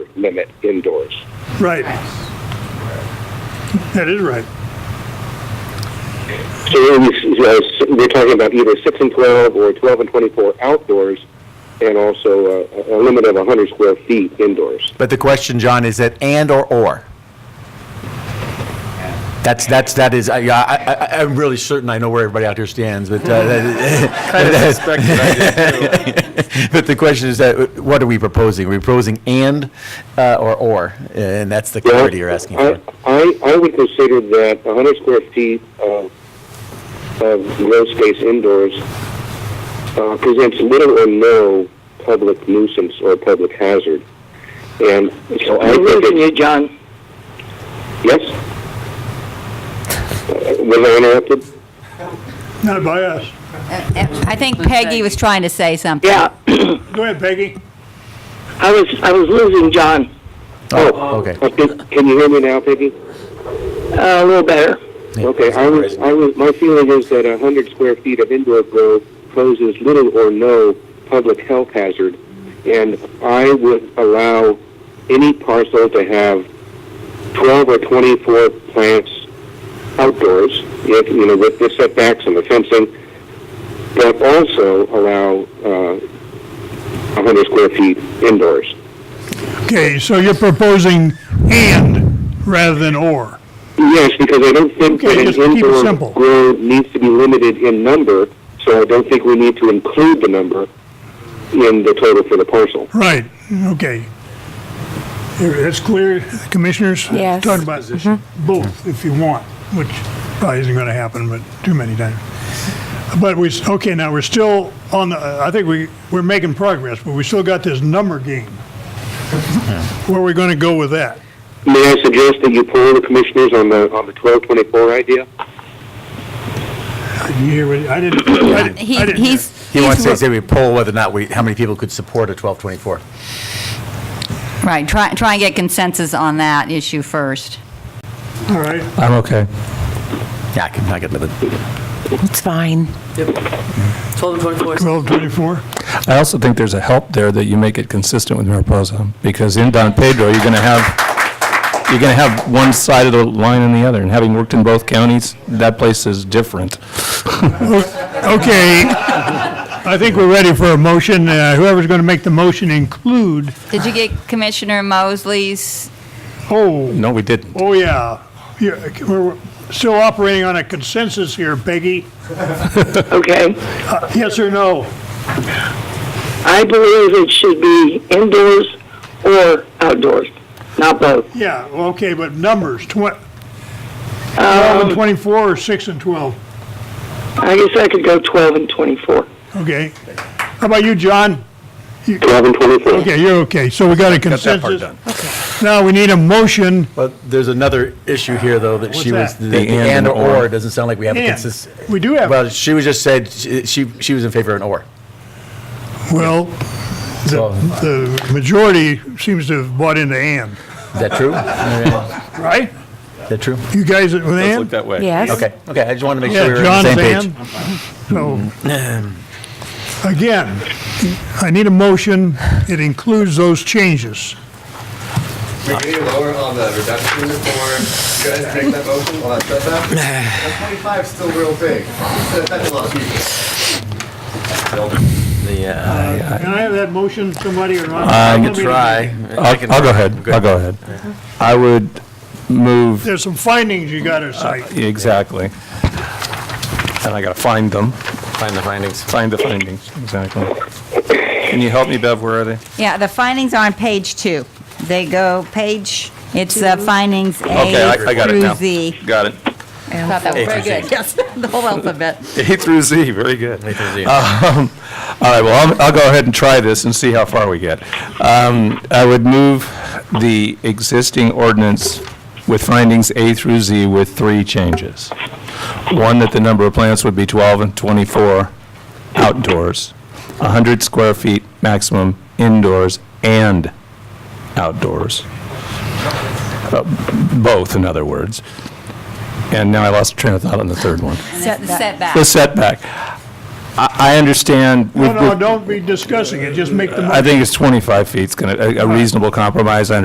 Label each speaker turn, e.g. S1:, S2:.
S1: limit indoors.
S2: Right. That is right.
S1: So here we, uh, s- we're talking about either 6 and 12 or 12 and 24 outdoors and also uh, a a limit of 100 square feet indoors.
S3: But the question, John, is that and or or? That's, that's, that is, I, I, I- I'm really certain I know where everybody out here stands, but, uh, that- but the question is that, what are we proposing? Are we proposing and, uh, or or? And that's the clarity you're asking
S1: I,
S3: for.
S1: I, I would consider that 100 square feet of, of grow space indoors uh, presents little or no public nuisance or public hazard. And so I
S4: We're
S1: think
S4: losing
S1: it's,
S4: you, John.
S1: yes? Uh, Was I interrupted?
S2: Not by us.
S5: I think Peggy was trying to say something.
S4: Yeah,
S2: Go ahead, Peggy.
S4: I was, I was losing John
S3: Oh, okay.
S1: Okay, Can you hear me now, Peggy?
S4: uh, a little better.
S1: Okay, I was, I was, my feeling is that a hundred square feet of indoor grow poses little or no public health hazard, and I would allow any parcel to have twelve or twenty-four plants outdoors, if, you know, with the setbacks and the fencing, but also allow, uh, a hundred square feet indoors.
S2: Okay, so you're proposing and rather than or.
S1: Yes, because I don't think
S2: Okay,
S1: that
S2: just
S1: an
S2: keep it
S1: indoor
S2: simple.
S1: grow needs to be limited in number, so I don't think we need to include the number in the total for the parcel.
S2: Right, okay. Here, That's clear, commissioners?
S6: Yes.
S2: Talking about both, if you want, which probably isn't going to happen, but too many times. But we, s- okay, now we're still on the, uh, I think we, we're making progress, but we still got this number game. Where are we going to go with that?
S1: May I suggest that you poll the commissioners on the, on the twelve twenty-four idea?
S2: Did you hear what, I didn't, I didn't-
S5: He,
S2: I didn't hear.
S5: he's,
S3: He wants to
S5: he's,
S3: say we poll whether or not we, how many people could support a 1224.
S5: right, try, try and get consensus on that issue first.
S2: All right.
S7: I'm okay.
S3: Yeah, I can, I can live with it.
S6: It's fine.
S8: 12 and 24 is
S2: 1224?
S7: I also think there's a help there that you make it consistent with Mariposa, because in Don Pedro, you're going to have, you're going to have one side of the line and the other, and having worked in both counties, that place is different.
S2: Okay. I think we're ready for a motion. Uh, Whoever's going to make the motion include,
S5: Did you get Commissioner Mosley's?
S2: oh,
S7: No, we didn't.
S2: Oh, yeah. Yeah, We're still operating on a consensus here, Peggy.
S4: Okay.
S2: Yes or no?
S4: I believe it should be indoors or outdoors, not both.
S2: Yeah, well, okay, but numbers, twen- 12
S3: Um,
S2: and 24 or 6 and 12?
S4: I guess I could go 12 and 24.
S2: Okay. How about you, John?
S1: Twelve and twenty-four.
S2: Okay, you're okay. So we got a
S3: Got that part
S2: consensus.
S3: done.
S2: Now, we need a motion.
S3: But there's another issue here, though, that she
S2: What's
S3: was,
S2: that?
S3: the and or or doesn't sound like we have a
S2: And.
S3: consist.
S2: We do have-
S3: Well, she was just said, she, she- she was in favor of an or.
S2: Well, the
S3: So-
S2: the majority seems to have bought into and,
S3: Is that true? Is
S2: right?
S3: that true?
S2: You guys with and?
S9: that way.
S6: Yes.
S3: Okay, okay, I just wanted to make sure
S2: Yeah,
S3: we were on
S2: John's
S3: the same
S2: and.
S3: page.
S2: So, again, I need a motion. It includes those changes.
S10: We need to lower on the reduction for, you guys make that motion on that setback? That twenty-five's still real big. That- That's a lot of people.
S2: Can I have that motion, somebody or not?
S7: I can
S2: Let me-
S7: I'll I'll go ahead, I'll go ahead.
S9: Uh-huh.
S7: I would move,
S2: There's some findings you gotta
S7: Uh,
S2: cite.
S7: exactly. And I got to find them.
S9: Find the findings.
S7: Find the findings, exactly. Can you help me, Bev, where are they?
S5: Yeah, the findings are on page two. They go page, it's uh, findings A
S7: Okay, I- I got it now.
S5: through Z.
S7: Got it.
S5: Thought that was very good, yes, the whole alphabet.
S7: A through Z, very good. Um,
S3: A through Z.
S7: All right, well, I'm- I'll go ahead and try this and see how far we get. Um, I would move the existing ordinance with findings A through Z with three changes. One, that the number of plants would be 12 and 24 outdoors, 100 square feet maximum indoors and outdoors. Uh, Both, in other words. And now I lost train of thought on the third one.
S5: Set- Setback.
S7: The setback. I, I understand.
S2: No,
S7: with-
S2: no,
S7: with-
S2: don't be discussing it, just make the motion.
S7: I think it's 25 feet. It's going to, a reasonable compromise. I